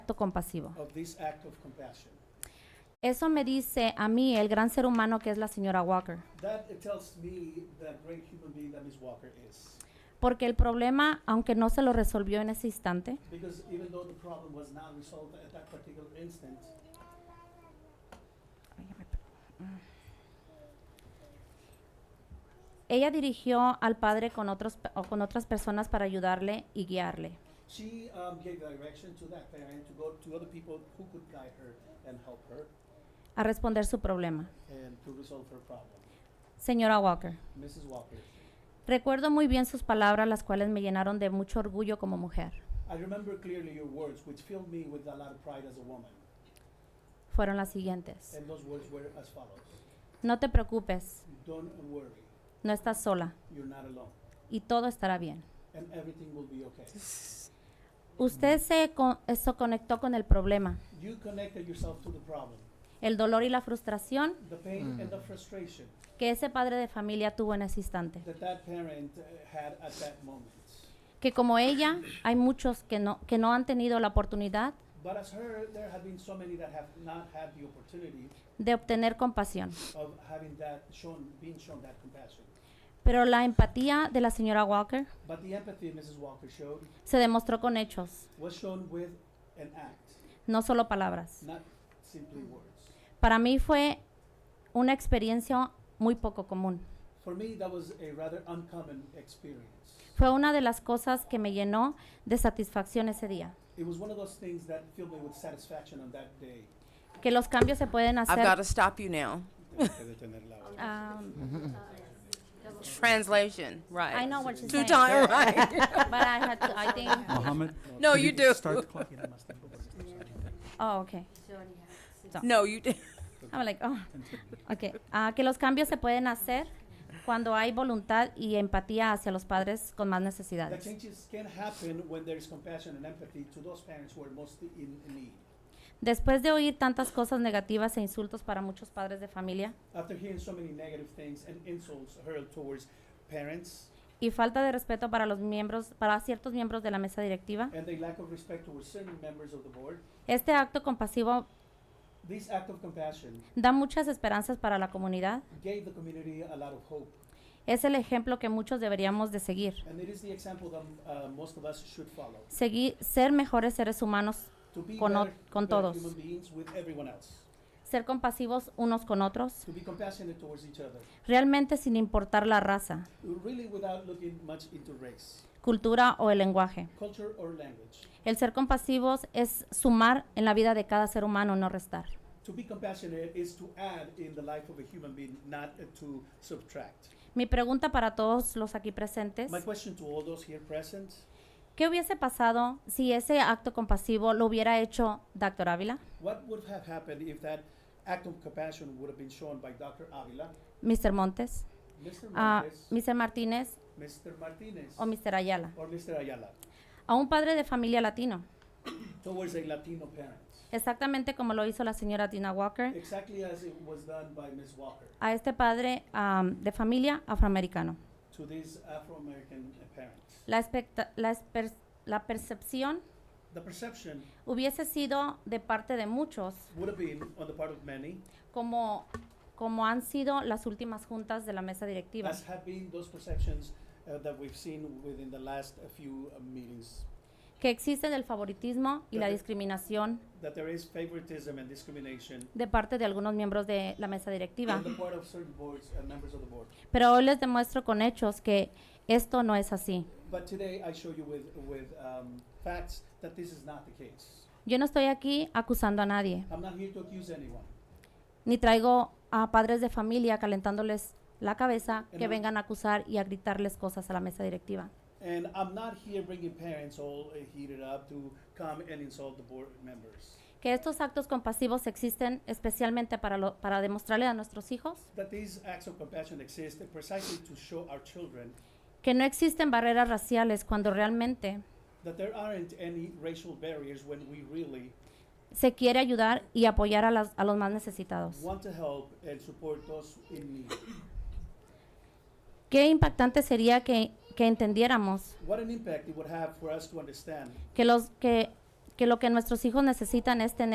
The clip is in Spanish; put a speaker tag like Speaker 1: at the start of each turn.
Speaker 1: acto compasivo.
Speaker 2: of this act of compassion.
Speaker 1: Eso me dice a mí el gran ser humano que es la señora Walker.
Speaker 2: That it tells me the great human being that Ms. Walker is.
Speaker 1: Porque el problema, aunque no se lo resolvió en ese instante,
Speaker 2: Because even though the problem was not resolved at that particular instant,
Speaker 1: ella dirigió al padre con, otros, pe- o con otras personas para ayudarle y guiarle.
Speaker 2: she um, gave direction to that parent to go to other people who could guide her and help her
Speaker 1: a responder su problema.
Speaker 2: and to resolve her problem.
Speaker 1: Señora Walker,
Speaker 2: Mrs. Walker,
Speaker 1: recuerdo muy bien sus palabras, las cuales me llenaron de mucho orgullo como mujer.
Speaker 2: I remember clearly your words, which filled me with a lot of pride as a woman.
Speaker 1: Fueron las siguientes.
Speaker 2: And those words were as follows
Speaker 1: No te preocupes,
Speaker 2: Don't worry,
Speaker 1: no estás sola
Speaker 2: you're not alone,
Speaker 1: y todo estará bien.
Speaker 2: and everything will be okay.
Speaker 1: Usted se, co- se conectó con el problema,
Speaker 2: You connected yourself to the problem,
Speaker 1: el dolor y la frustración
Speaker 2: the pain and the frustration
Speaker 1: que ese padre de familia tuvo en ese instante.
Speaker 2: that that parent uh, had at that moment.
Speaker 1: Que como ella, hay muchos que no, que no han tenido la oportunidad
Speaker 2: But as her, there have been so many that have not had the opportunity
Speaker 1: de obtener compasión.
Speaker 2: of having that shown, being shown that compassion.
Speaker 1: Pero la empatía de la señora Walker
Speaker 2: But the empathy Mrs. Walker showed
Speaker 1: se demostró con hechos,
Speaker 2: was shown with an act,
Speaker 1: no solo palabras.
Speaker 2: not simply words.
Speaker 1: Para mí fue una experiencia muy poco común.
Speaker 2: For me, that was a rather uncommon experience.
Speaker 1: Fue una de las cosas que me llenó de satisfacción ese día,
Speaker 2: It was one of those things that filled me with satisfaction on that day.
Speaker 1: que los cambios se pueden
Speaker 3: I've got
Speaker 1: hacer.
Speaker 3: to stop you now.
Speaker 1: Ah,
Speaker 3: Translation, right?
Speaker 1: I know what she's
Speaker 3: Two
Speaker 1: saying,
Speaker 3: time, right?
Speaker 1: but I had to- I think.
Speaker 4: Mohammed?
Speaker 3: No,
Speaker 4: could
Speaker 3: you do.
Speaker 4: Start the clock.
Speaker 1: Oh, okay.
Speaker 3: No, you. d-
Speaker 1: I'm like, oh, okay. Ah, que los cambios se pueden hacer cuando hay voluntad y empatía hacia los padres con más
Speaker 2: The
Speaker 1: necesidades.
Speaker 2: changes can happen when there is compassion and empathy to those parents who are most in need.
Speaker 1: Después de oír tantas cosas negativas e insultos para muchos padres de familia
Speaker 2: After hearing so many negative things and insults hurled towards parents
Speaker 1: y falta de respeto para los miembros, para ciertos miembros de la mesa directiva,
Speaker 2: and the lack of respect towards certain members of the board,
Speaker 1: Este acto compasivo
Speaker 2: this act of compassion
Speaker 1: da muchas esperanzas para la comunidad.
Speaker 2: gave the community a lot of hope.
Speaker 1: Es el ejemplo que muchos deberíamos de seguir.
Speaker 2: And it is the example that uh, most of us should follow.
Speaker 1: Seguir, ser mejores seres humanos,
Speaker 2: To be
Speaker 1: Con o-
Speaker 2: better-
Speaker 1: con
Speaker 2: better
Speaker 1: todos.
Speaker 2: human beings with everyone else.
Speaker 1: ser compasivos unos con otros,
Speaker 2: To be compassionate towards each other.
Speaker 1: realmente sin importar la raza,
Speaker 2: Really without looking much into race,
Speaker 1: cultura o el lenguaje.
Speaker 2: culture, or language.
Speaker 1: El ser compasivos es sumar en la vida de cada ser humano, no restar.
Speaker 2: To be compassionate is to add in the life of a human being, not uh, to subtract.
Speaker 1: Mi pregunta para todos los aquí presentes,
Speaker 2: My question to all those here present
Speaker 1: ¿qué hubiese pasado si ese acto compasivo lo hubiera hecho Dr. Ávila,
Speaker 2: what would have happened if that act of compassion would have been shown by Dr. Avila,
Speaker 1: Mr. Montes,
Speaker 2: Mr.
Speaker 1: ah,
Speaker 2: Montes,
Speaker 1: Mr. Martínez
Speaker 2: Mr. Martinez,
Speaker 1: o Mr. Ayala?
Speaker 2: or Mr. Ayala
Speaker 1: a un padre de familia latino,
Speaker 2: towards a Latino parent?
Speaker 1: exactamente como lo hizo la señora Tina Walker,
Speaker 2: Exactly as it was done by Ms. Walker
Speaker 1: a este padre am, de familia afroamericano.
Speaker 2: to these Afro American parents.
Speaker 1: La, expecta- la esper- la percepción
Speaker 2: The perception
Speaker 1: hubiese sido de parte de muchos,
Speaker 2: would have been on the part of many,
Speaker 1: como, como han sido las últimas juntas de la mesa directiva.
Speaker 2: as have been those perceptions uh, that we've seen within the last uh, few uh, meetings
Speaker 1: que existen el favoritismo y la
Speaker 2: Ujú.
Speaker 1: discriminación
Speaker 2: that there is favoritism and discrimination
Speaker 1: de parte de algunos miembros de la mesa directiva.
Speaker 2: on the part of certain boards and members of the board.
Speaker 1: Pero hoy les demuestro con hechos que esto no es así.
Speaker 2: But today I show you with, with um, facts that this is not the case.
Speaker 1: Yo no estoy aquí acusando a nadie.
Speaker 2: I'm not here to accuse anyone.
Speaker 1: ni traigo a padres de familia calentándoles la cabeza
Speaker 2: En
Speaker 1: que
Speaker 2: un-
Speaker 1: vengan a acusar y a gritarles cosas a la mesa directiva.
Speaker 2: And I'm not here bringing parents all uh, heated up to come and insult the board members.
Speaker 1: Que estos actos compasivos existen especialmente para, lo- para demostrarle a nuestros hijos
Speaker 2: That these acts of compassion exist precisely to show our children
Speaker 1: que no existen barreras raciales cuando realmente
Speaker 2: that there aren't any racial barriers when we really
Speaker 1: se quiere ayudar y apoyar a, las- a los más necesitados.
Speaker 2: want to help and support those in need.
Speaker 1: Qué impactante sería que, que entendiéramos
Speaker 2: What an impact it would have for us to understand
Speaker 1: que, los, que, que lo que nuestros hijos necesitan es tener